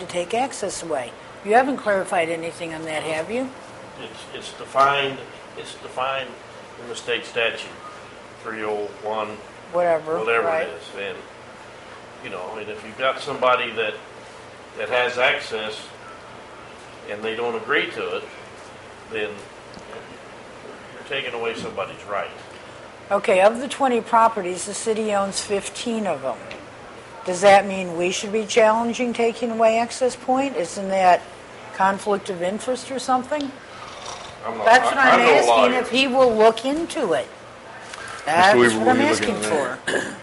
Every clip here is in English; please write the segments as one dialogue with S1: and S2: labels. S1: to take access away. You haven't clarified anything on that, have you?
S2: It's, it's defined, it's defined in the state statute, three oh one,
S1: Whatever, Uh-huh,
S2: whatever
S1: right?
S2: it is, and, you know, and if you've got somebody that, that has access and they don't agree to it, then you're taking away somebody's right.
S1: Okay, of the 20 properties, the city owns 15 of them. Does that mean we should be challenging taking away access point? Isn't that conflict of interest or something?
S2: I'm not-
S1: That's what
S2: I-
S1: I'm
S2: I'm no
S1: asking,
S2: lawyer.
S1: if he will look into it. That's
S3: Weaver,
S1: what I'm
S3: will you look
S1: asking
S3: into
S1: for.
S3: that?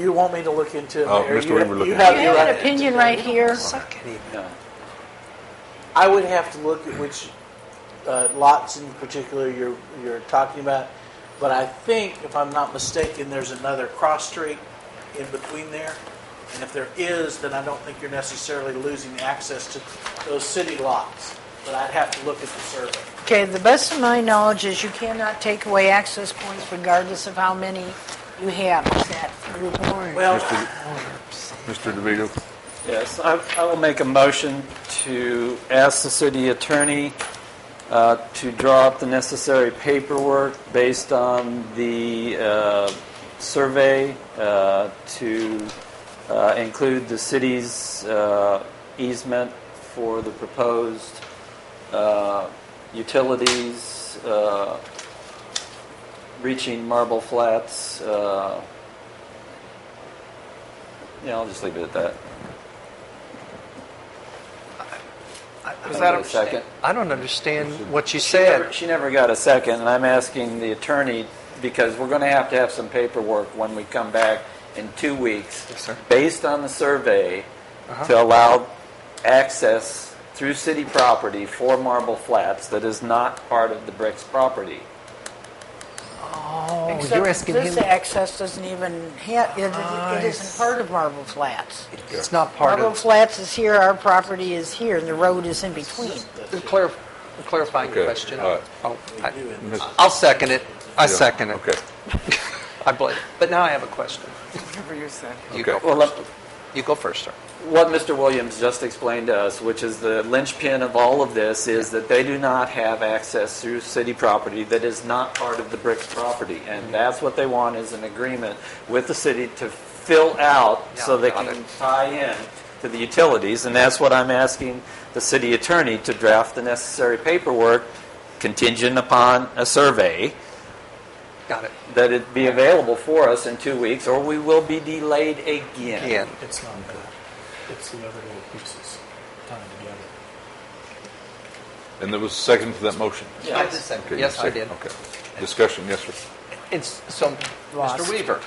S4: You want me to look into it,
S3: Oh,
S4: Mayor?
S3: Mr.
S4: You-
S3: Weaver, look
S4: you
S3: into
S1: You
S3: it.
S4: have your
S1: have an
S4: right.
S1: opinion right here?
S4: I would have to look at which uh, lots in particular you're, you're talking about, but I think, if I'm not mistaken, there's another cross street in between there. And if there is, then I don't think you're necessarily losing access to those city lots, but I'd have to look at the survey.
S1: Okay, the best of my knowledge is you cannot take away access points regardless of how many you have. Is that your point?
S4: Well,
S3: Mr. DeVito,
S5: Yes, I I will make a motion to ask the city attorney uh, to draw up the necessary paperwork based on the uh, survey uh, to uh, include the city's uh, easement for the proposed uh, utilities uh, reaching Marble Flats. uh, Yeah, I'll just leave it at that.
S6: Does that
S5: Can I get a
S6: understand-
S5: second?
S6: I don't understand what you
S5: She never-
S6: said.
S5: She never got a second, and I'm asking the attorney, because we're going to have to have some paperwork when we come back in two weeks.
S6: Yes, sir.
S5: Based on the survey, to allow access through city property for Marble Flats that is not part of the Bricks property.
S6: Oh,
S1: Except
S6: you're asking
S1: this
S6: him,
S1: access doesn't even, ha- it- it- it isn't part of Marble Flats.
S6: it's not part
S1: Marble
S6: of,
S1: Flats is here, our property is here, and the road is in between.
S6: Clarif- clarifying
S3: Okay,
S6: your question.
S3: all right.
S6: Oh, I-
S3: Miss-
S6: I'll second it. I
S3: Yeah,
S6: second it.
S3: Okay,
S6: I believe, but now I have a question. You go
S3: Okay.
S5: Well,
S6: first.
S5: let-
S6: You go first, sir.
S5: what Mr. Williams just explained to us, which is the linchpin of all of this, is that they do not have access through city property that is not part of the bricks property.
S6: Mm-hmm.
S5: And that's what they want is an agreement with the city to fill out so
S6: Yeah,
S5: they
S6: got
S5: can
S6: it.
S5: tie in to the utilities. And that's what I'm asking the city attorney to draft the necessary paperwork contingent upon a survey
S6: Got it.
S5: that it be available for us in two weeks or we will be delayed again.
S6: Ian,
S7: It's not that. It's the other little pieces tied together.
S3: and there was a second to that motion?
S6: I did second.
S3: Okay, you
S6: Yes, I
S3: second.
S6: did.
S3: Okay, discussion, yes, sir.
S6: It's, so,
S1: Lost.
S6: Mr. Weaver,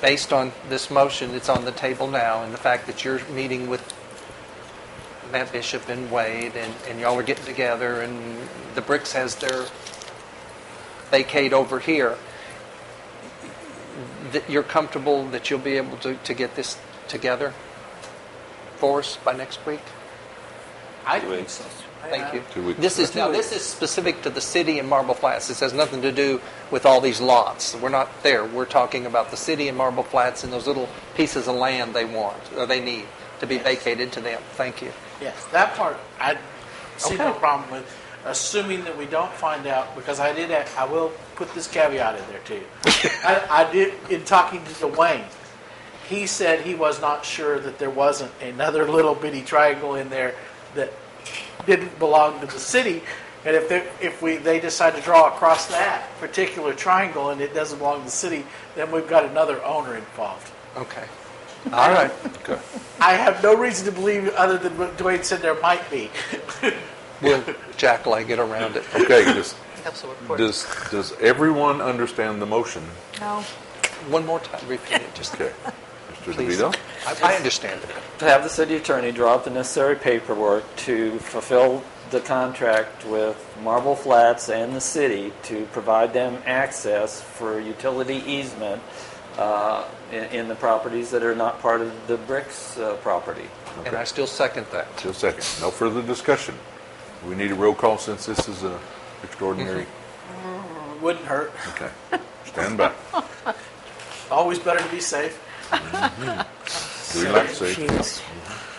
S6: based on this motion that's on the table now, and the fact that you're meeting with Matt Bishop and Wade, and, and y'all are getting together, and the Bricks has their vacate over here, that you're comfortable that you'll be able to, to get this together for us by next week?
S5: I think so.
S6: Thank you.
S3: Two weeks.
S6: This is, now, this is specific to the city and Marble Flats. This has nothing to do with all these lots. We're not there. We're talking about the city and Marble Flats and those little pieces of land they want, or they need, to be vacated to them. Thank you.
S4: Yes, that part I see no
S6: Okay.
S4: problem with, assuming that we don't find out, because I did, I will put this caveat in there too. I, I did, in talking to Dwayne, he said he was not sure that there wasn't another little bitty triangle in there that didn't belong to the city. And if they, if we, they decide to draw across that particular triangle and it doesn't belong to the city, then we've got another owner involved.
S6: Okay. All right.
S3: Okay,
S4: I have no reason to believe other than what Dwayne said there might be.
S6: We'll jackleg it around it.
S3: okay, does, does, does everyone understand the motion?
S1: No.
S6: One more time, repeat it, just,
S3: Okay, Mr.
S6: Please.
S3: DeVito?
S6: I I understand it.
S5: to have the city attorney draw up the necessary paperwork to fulfill the contract with Marble Flats and the city to provide them access for utility easement uh, in in the properties that are not part of the bricks uh, property.
S6: And I still second that.
S3: Just a second, no further discussion. We need a roll call since this is a extraordinary,
S6: Mm-hmm.
S4: Wouldn't hurt.
S3: okay, stand by.
S4: Always better to be safe.
S3: Do we like to say?
S1: Jeez.